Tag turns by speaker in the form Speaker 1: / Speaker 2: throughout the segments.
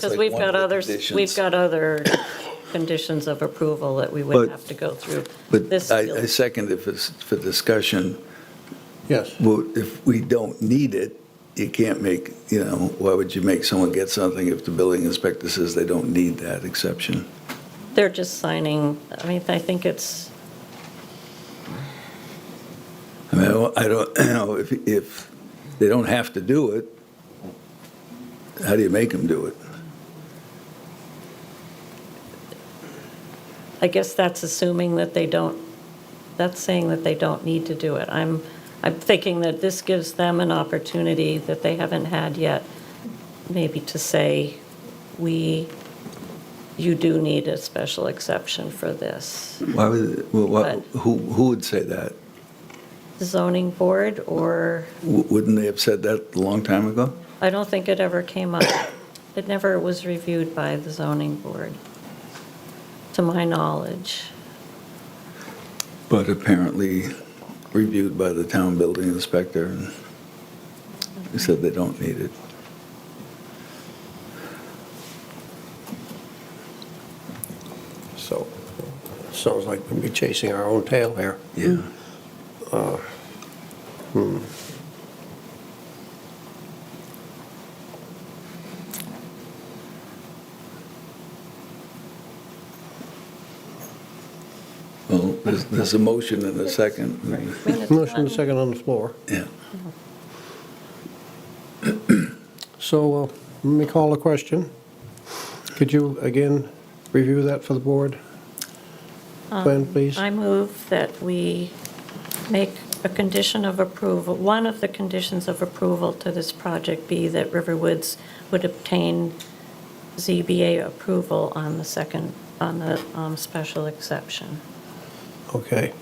Speaker 1: Because we've got others, we've got other conditions of approval that we
Speaker 2: But-
Speaker 1: would have to go through.
Speaker 2: But
Speaker 1: This
Speaker 2: I, I
Speaker 1: building.
Speaker 2: second if it's for discussion,
Speaker 3: Yes.
Speaker 2: well, if we don't need it, you can't make, you know, why would you make someone get something if the building inspector says they don't need that exception?
Speaker 1: They're just signing, I mean, I think it's,
Speaker 2: I mean, I don't- I don't, you know, if, if they don't have to do it, how do you make them do it?
Speaker 1: I guess that's assuming that they don't, that's saying that they don't need to do it. I'm, I'm thinking that this gives them an opportunity that they haven't had yet, maybe to say, we, you do need a special exception for this.
Speaker 2: Why would, well, why- who, who would say that?
Speaker 1: The zoning board, or,
Speaker 2: W- Wouldn't they have said that a long time ago?
Speaker 1: I don't think it ever came up. It never was reviewed by the zoning board, to my knowledge.
Speaker 2: But apparently reviewed by the town building inspector, and he said they don't need it.
Speaker 3: So, sounds like we'd be chasing our own tail here.
Speaker 2: Yeah. Well, there's, there's a motion and a second.
Speaker 1: I mean, it's
Speaker 3: Motion
Speaker 1: not-
Speaker 3: second on the floor.
Speaker 2: Yeah.
Speaker 3: So, uh, let me call a question. Could you, again, review that for the board? Plan, please?
Speaker 1: I move that we make a condition of approval, one of the conditions of approval to this project be that Riverwoods would obtain ZBA approval on the second, on the um, special exception.
Speaker 3: Okay.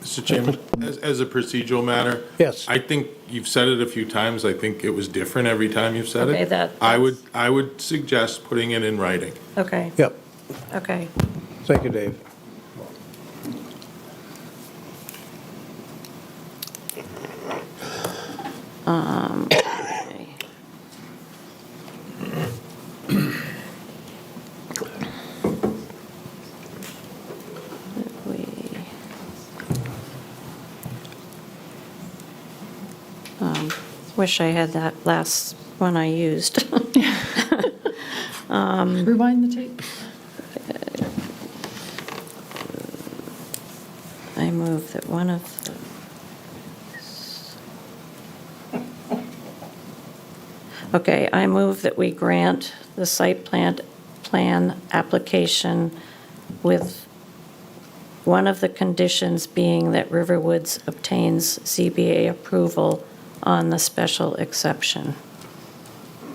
Speaker 4: Mr. Chairman, as, as a procedural matter.
Speaker 3: Yes.
Speaker 4: I think you've said it a few times. I think it was different every time you've said it.
Speaker 1: Okay, that-
Speaker 4: I would, I would suggest putting it in writing.
Speaker 1: Okay,
Speaker 3: Yep.
Speaker 1: okay.
Speaker 3: Thank you, Dave.
Speaker 1: We- Um, Wish I had that last one I used.
Speaker 5: Rewind the tape.
Speaker 1: I move that one of the... Okay, I move that we grant the site plan, plan application with one of the conditions being that Riverwoods obtains CBA approval on the special exception.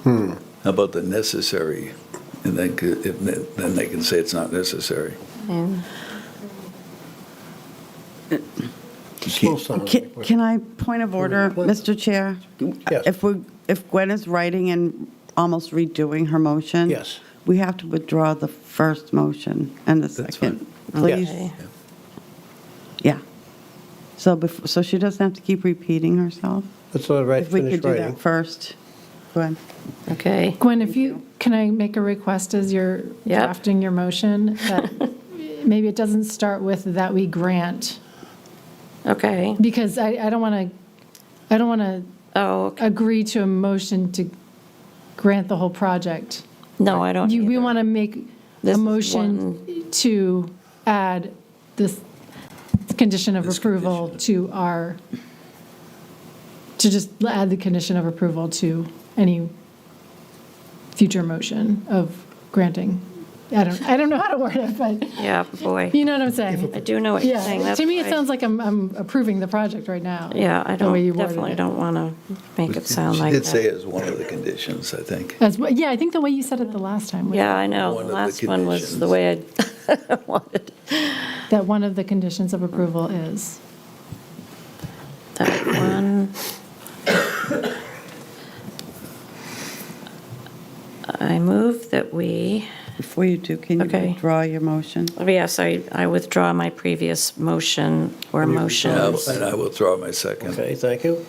Speaker 2: How about the necessary? And then, c- if ne- then they can say it's not necessary.
Speaker 1: And
Speaker 3: Still sounds
Speaker 5: Ca-
Speaker 3: like we're-
Speaker 5: Can I, point of order, Mr. Chair?
Speaker 3: Yes.
Speaker 5: If we, if Gwen is writing and almost redoing her motion?
Speaker 3: Yes.
Speaker 5: We have to withdraw the first motion and the second,
Speaker 3: Yes.
Speaker 5: please. Yeah. So before, so she doesn't have to keep repeating herself?
Speaker 3: Let's let it
Speaker 5: If we
Speaker 3: finish
Speaker 5: could do that
Speaker 3: writing.
Speaker 5: first. Gwen?
Speaker 1: Okay.
Speaker 6: Gwen, if you, can I make a request as you're
Speaker 1: Yep.
Speaker 6: drafting your motion? that Maybe it doesn't start with that we grant,
Speaker 1: Okay.
Speaker 6: because I, I don't want to, I don't want to
Speaker 1: Oh, okay.
Speaker 6: agree to a motion to grant the whole project.
Speaker 1: no, I don't
Speaker 6: You, we
Speaker 1: either.
Speaker 6: want to make
Speaker 1: This is
Speaker 6: a motion to add this condition of
Speaker 2: This
Speaker 6: approval to our, to just add the condition of approval to any future motion of granting. I don't, I don't know how to word it, but
Speaker 1: Yeah, boy.
Speaker 6: you know what I'm saying?
Speaker 1: I do know what you're saying.
Speaker 6: Yeah,
Speaker 1: That's
Speaker 6: to me, it
Speaker 1: why-
Speaker 6: sounds like I'm, I'm approving the project right now.
Speaker 1: Yeah, I
Speaker 6: the way you
Speaker 1: don't,
Speaker 6: worded
Speaker 1: definitely
Speaker 6: it.
Speaker 1: don't want to make it sound like
Speaker 2: She did say
Speaker 1: that.
Speaker 2: it was one of the conditions, I think.
Speaker 6: As, well- yeah, I think the way you said it the last time, was
Speaker 1: Yeah, I know.
Speaker 2: One of
Speaker 1: The
Speaker 2: the
Speaker 1: last one was the
Speaker 2: conditions.
Speaker 1: way I wanted.
Speaker 6: that one of the conditions of approval is.
Speaker 1: That one. I move that we
Speaker 5: Before you do, can you
Speaker 1: Okay.
Speaker 5: withdraw your motion?
Speaker 1: Yes, I, I withdraw my previous motion or
Speaker 2: And I will-
Speaker 1: motions.
Speaker 2: And I will throw out my second.
Speaker 3: Okay, thank you.